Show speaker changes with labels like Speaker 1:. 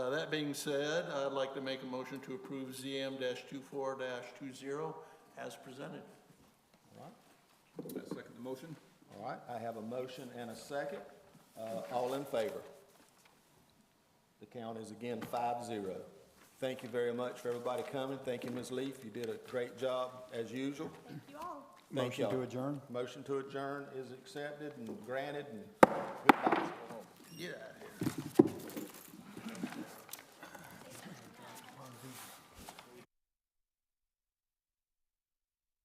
Speaker 1: Uh, that being said, I'd like to make a motion to approve ZM 24 20 as presented.
Speaker 2: All right.
Speaker 3: I second the motion.
Speaker 2: All right, I have a motion and a second. Uh, All in favor? The count is again five zero. Thank you very much for everybody coming. Thank you, Ms. Leaf. You did a great job, as usual.
Speaker 4: Thank you all.
Speaker 2: Thank
Speaker 5: Motion to
Speaker 2: y'all.
Speaker 5: adjourn?
Speaker 2: Motion to adjourn is accepted and granted, and goodbye.